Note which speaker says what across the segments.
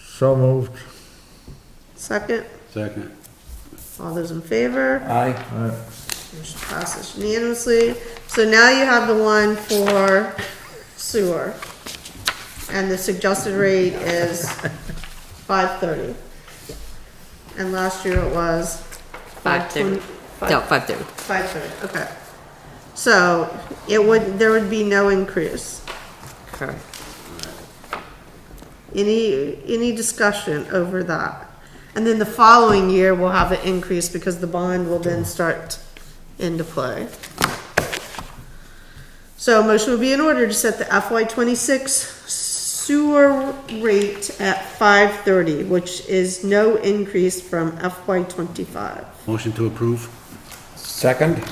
Speaker 1: So moved.
Speaker 2: Second,
Speaker 3: Second.
Speaker 2: all those in favor?
Speaker 4: Aye.
Speaker 1: Aye.
Speaker 2: Motion passes unanimously. So now you have the one for sewer. And the suggested rate is five thirty. And last year it was?
Speaker 5: Five thirty. No, five thirty.
Speaker 2: Five thirty, okay. So it would, there would be no increase.
Speaker 5: Correct.
Speaker 2: Any, any discussion over that? And then the following year, we'll have an increase because the bond will then start into play. So a motion would be in order to set the FY twenty-six sewer rate at five thirty, which is no increase from FY twenty-five.
Speaker 3: Motion to approve?
Speaker 4: Second?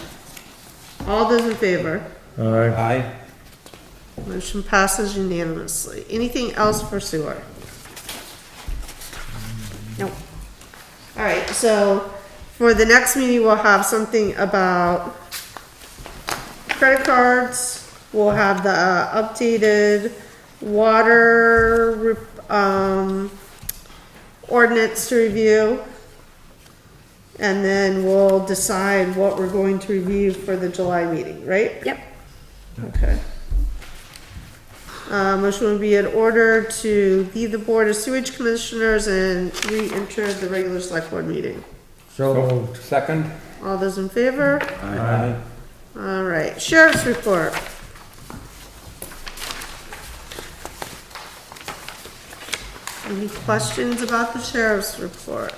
Speaker 2: All those in favor?
Speaker 1: Aye.
Speaker 4: Aye.
Speaker 2: Motion passes unanimously. Anything else for sewer? Nope. All right, so for the next meeting, we'll have something about credit cards. We'll have the uh, updated water, rep- um, ordinance to review. And then we'll decide what we're going to review for the July meeting, right?
Speaker 5: Yep.
Speaker 2: Okay. Uh, motion would be in order to leave the Board of Sewage Commissioners and re-enter the regular select board meeting.
Speaker 1: So moved.
Speaker 4: Second?
Speaker 2: All those in favor?
Speaker 4: Aye.
Speaker 2: All right, Sheriff's report. Any questions about the sheriff's report?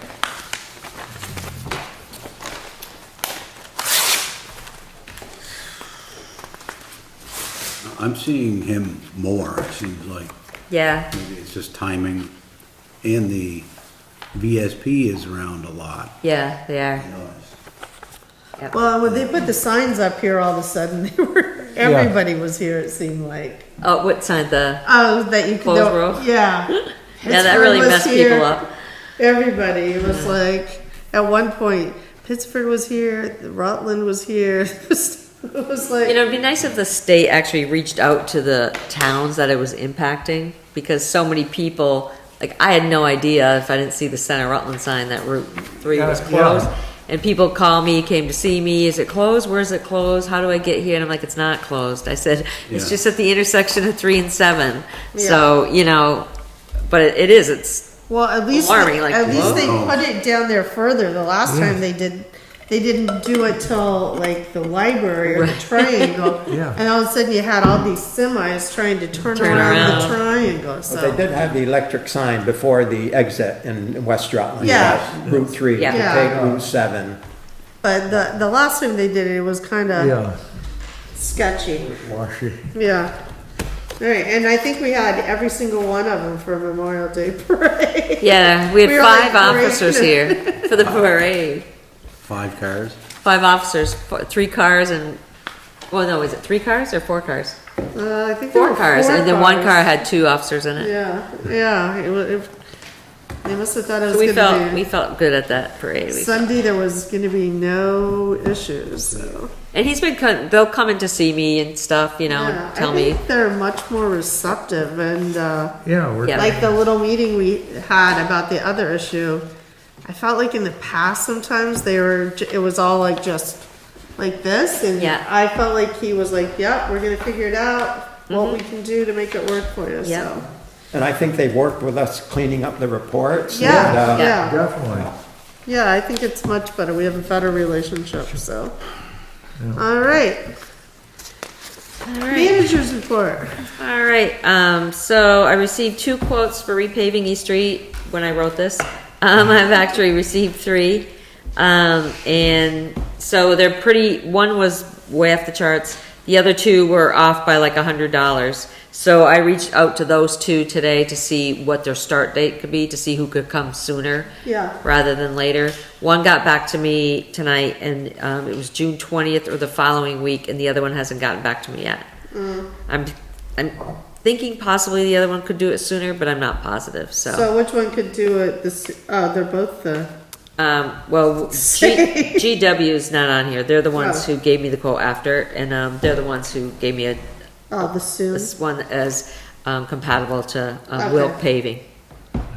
Speaker 3: I'm seeing him more, it seems like.
Speaker 5: Yeah,
Speaker 3: Maybe it's just timing. And the VSP is around a lot.
Speaker 5: yeah, they are.
Speaker 3: I noticed.
Speaker 5: Yep.
Speaker 2: Well, when they put the signs up here all of a sudden, they were, everybody was here, it seemed like.
Speaker 5: Oh, what sign? The
Speaker 2: Oh, that you could.
Speaker 5: Closed road?
Speaker 2: Yeah.
Speaker 5: yeah, that really
Speaker 2: Pittsburgh was
Speaker 5: messed
Speaker 2: here.
Speaker 5: people up.
Speaker 2: Everybody it was like, at one point, Pittsburgh was here, Rutland was here. It was like,
Speaker 5: You know, it'd be nice if the state actually reached out to the towns that it was impacting because so many people, like, I had no idea if I didn't see the Center Rutland sign that Route 3 was
Speaker 1: Yeah, yeah.
Speaker 5: closed. And people call me, came to see me, is it closed? Where's it closed? How do I get here? And I'm like, it's not closed. I said, it's
Speaker 3: Yeah.
Speaker 5: just at the intersection of 3 and 7. So, you know, but it, it is, it's,
Speaker 2: well, at least,
Speaker 5: alarming, like,
Speaker 2: at least they
Speaker 3: whoa.
Speaker 2: put it down there further. The last time they did, they didn't do it till like the library or the triangle.
Speaker 1: Yeah.
Speaker 2: And all of a sudden you had all these semis trying to turn
Speaker 5: Turn
Speaker 2: around the
Speaker 5: around.
Speaker 2: triangle, so.
Speaker 4: But they did have the electric sign before the exit in West Rutland.
Speaker 2: Yeah.
Speaker 4: about Route three, to
Speaker 5: Yeah.
Speaker 4: take Route seven.
Speaker 2: But the, the last time they did it, it was kinda
Speaker 1: Yeah,
Speaker 2: sketchy.
Speaker 1: washy.
Speaker 2: Yeah. All right, and I think we had every single one of them for Memorial Day Parade.
Speaker 5: yeah, we had
Speaker 2: We were like,
Speaker 5: five
Speaker 2: "Great."
Speaker 5: officers here for the parade.
Speaker 3: Five cars?
Speaker 5: five officers, four, three cars and, well, no, is it three cars or four cars?
Speaker 2: Uh, I think there
Speaker 5: Four
Speaker 2: were
Speaker 5: cars,
Speaker 2: four
Speaker 5: and then one
Speaker 2: cars.
Speaker 5: car had two officers in it.
Speaker 2: Yeah, yeah. It, wa- it, they must have thought it was
Speaker 5: So we
Speaker 2: gonna
Speaker 5: felt,
Speaker 2: be
Speaker 5: we felt good at that parade. We-
Speaker 2: Sunday. There was gonna be no issues. So.
Speaker 5: And he's been, co- they'll come in to see me and stuff, you know,
Speaker 2: Yeah,
Speaker 5: and tell
Speaker 2: I
Speaker 5: me.
Speaker 2: think they're much more receptive, and uh,
Speaker 1: Yeah, we're,
Speaker 5: Yeah.
Speaker 2: like the little meeting we had about the other issue. I felt like in the past sometimes they were. j- It was all like just like this, and
Speaker 5: Yeah.
Speaker 2: I felt like he was like, "Yep, we're gonna figure it out." What we can do to make it work for you.
Speaker 5: Yep.
Speaker 2: So,
Speaker 4: And I think they've worked with us cleaning up the reports. and,
Speaker 2: yeah,
Speaker 4: uh,
Speaker 2: yeah.
Speaker 1: definitely.
Speaker 2: Yeah, I think it's much better. We have a better relationship, so. All right,
Speaker 5: All right,
Speaker 2: managers report.
Speaker 5: all right, um, so I received two quotes for repaving East Street when I wrote this. Um, I've actually received three. Um, and so they're pretty, one was way off the charts. The other two were off by like a hundred dollars. So I reached out to those two today to see what their start date could be, to see who could come sooner.
Speaker 2: Yeah.
Speaker 5: Rather than later. One got back to me tonight and, um, it was June twentieth or the following week and the other one hasn't gotten back to me yet.
Speaker 2: Mm.
Speaker 5: I'm, I'm thinking possibly the other one could do it sooner, but I'm not positive,
Speaker 2: So which one could do it this, oh, they're both the,
Speaker 5: Um, well, G, GW is not on here. They're the ones
Speaker 2: Oh.
Speaker 5: who gave me the quote after, and um, they're the ones who gave me a,
Speaker 2: oh, the soon.
Speaker 5: this one as um, compatible to um,
Speaker 2: Okay.
Speaker 5: Wilk paving.